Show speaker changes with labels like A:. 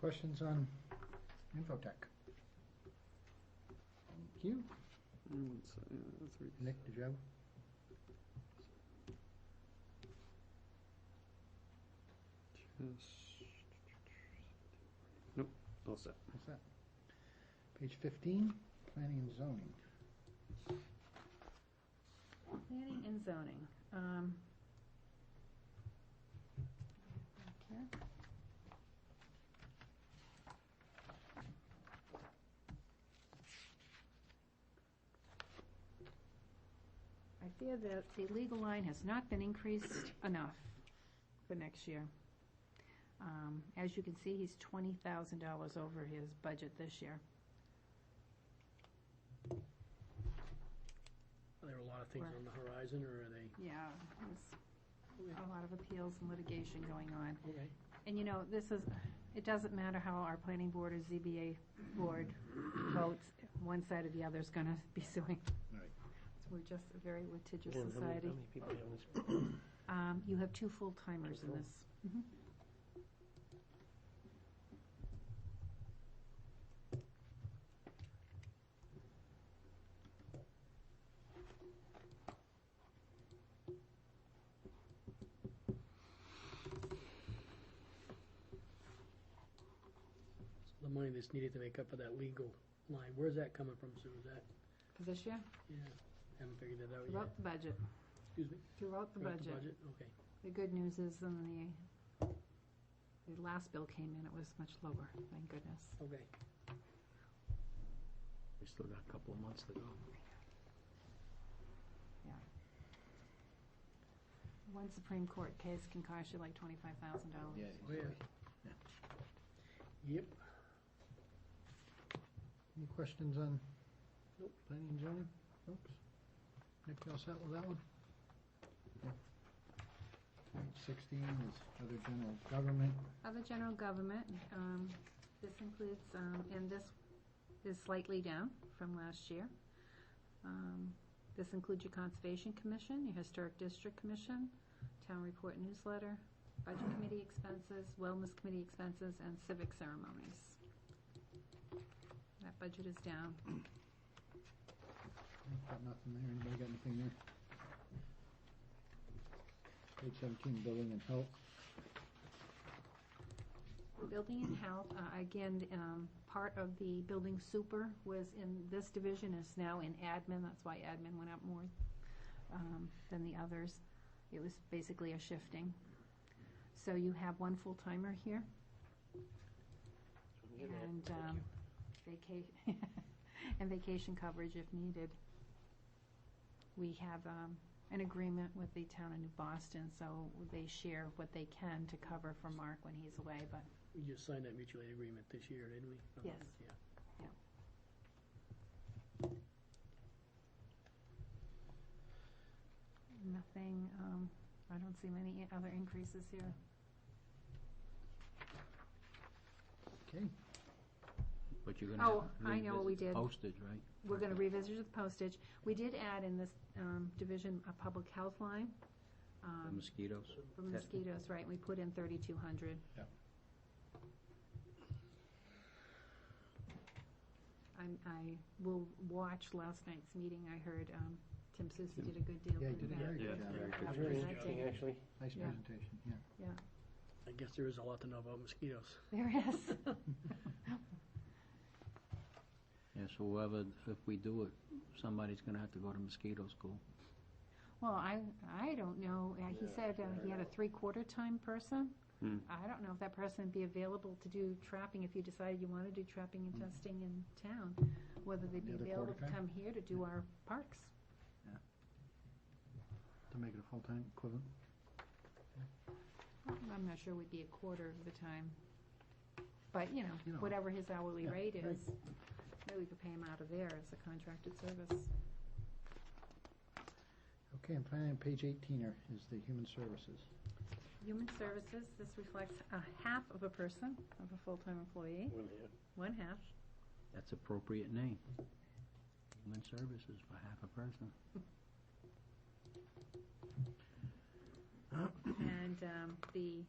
A: questions on Infotech? Thank you. Nick, did you have?
B: Nope, all set.
A: What's that? Page fifteen, planning and zoning.
C: Planning and zoning. um, okay. I fear that the legal line has not been increased enough for next year. Um, As you can see, he's twenty thousand dollars over his budget this year.
D: Are there a lot of things
C: Where?
D: on the horizon, or are they?
C: Yeah, there's a lot of appeals and litigation going on.
D: Okay.
C: And you know, this is, it doesn't matter how our planning board or ZBA board votes, one side or the other is gonna be suing.
A: Right.
C: So We're just a very litigious
D: Again, how many-
C: society.
D: How many people are on this?
C: Um, you have two full-timers in this. Mhm.
D: The money that's needed to make up for that legal line, where's that coming from, Sue? Is that,
C: For this year,
D: yeah, haven't figured that out yet.
C: throughout the budget,
D: Excuse me?
C: throughout the
D: Throughout
C: budget.
D: Okay.
C: The good news is in the, the last bill came in, it was much lower, thank goodness.
D: Okay.
B: We still got a couple of months to go.
C: One Supreme Court case can cost you like twenty-five thousand dollars.
D: Oh, yeah. Yep.
A: Any questions on
D: Nope.
A: planning and zoning, folks? Nick, you all set with that one? Yeah. Page sixteen is other general government.
C: Other general government, um, this includes, um, and this is slightly down from last year. Um, This includes your Conservation Commission, your Historic District Commission, Town Report Newsletter, Budget Committee expenses, Wellness Committee expenses, and civic ceremonies. That budget is down.
A: I've Got nothing there, anybody got anything there? Page seventeen, building and health.
C: Building and health, uh, again, um, part of the building super was in, this division is now in admin, that's why admin went up more um, than the others. It was basically a shifting. So you have one full-timer here,
D: Get that.
C: and
D: Thank
C: um,
D: you.
C: vaca- and vacation coverage if needed. We have um, an agreement with the town of New Boston, so they share what they can to cover for Mark when he's away, but
D: We just signed that mutual aid agreement this year, didn't we?
C: Yes.
D: Yeah.
C: Nothing, um, I don't see many i- other increases here.
A: Okay,
B: But you're
C: Oh,
B: gonna
C: I know what we
B: revisit the
C: did.
B: postage, right?
C: We're gonna revisit the postage. We did add in this, um, division a public health line,
B: The
C: um,
B: mosquitoes.
C: for
B: testing.
C: mosquitoes, right? We put in thirty-two hundred.
A: Yep.
C: I'm, I will watch last night's meeting. I heard, um, Tim Susi did a good deal.
A: Yeah, he
C: with
A: did a
C: that.
A: very
B: Yeah,
A: good job.
B: very
D: It was
B: good.
D: very
C: Presenting.
D: interesting, actually.
A: Nice
C: Yeah.
A: presentation, yeah.
D: I guess there is a lot to know about mosquitoes.
C: There is.
B: Yes, whoever, if we do it, somebody's gonna have to go to mosquito school.
C: Well, I, I don't know. Uh, He said uh, he had a three-quarter time person.
B: Hmm.
C: I don't know if that person would be available to do trapping if you decided you want to do trapping and testing in town, whether they'd be
A: The other
C: available
A: quarter
C: to
A: time?
C: come here to do our parks.
A: To make it a full-time equivalent.
C: I'm not sure we'd be a quarter of the time. But, you
A: You
C: know,
A: know.
C: whatever his hourly
A: Yeah,
C: rate
A: right.
C: is, maybe we could pay him out of there as a contracted service.
A: Okay, and finally, on page eighteen are- is the human services.
C: Human Services, this reflects a half of a person, of a full-time employee, one half.
B: That's appropriate name. Human Services for half a person.
C: And um, the